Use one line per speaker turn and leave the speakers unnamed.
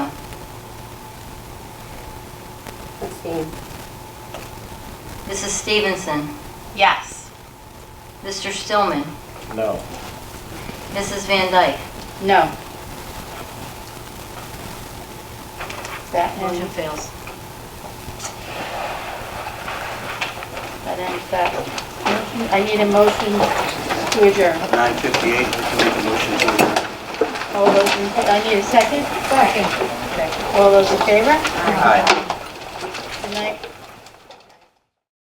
Abstain.
Mrs. Stevenson,
Yes.
Mr. Stillman,
No.
Mrs. Van Dyke.
No.
That
Motion
ends,
fails.
that ends that. motion. I need a motion to adjourn.
At 9:58, I'd like to make a motion to adjourn.
All those in, I need a second? Second. All those in favor?
Aye.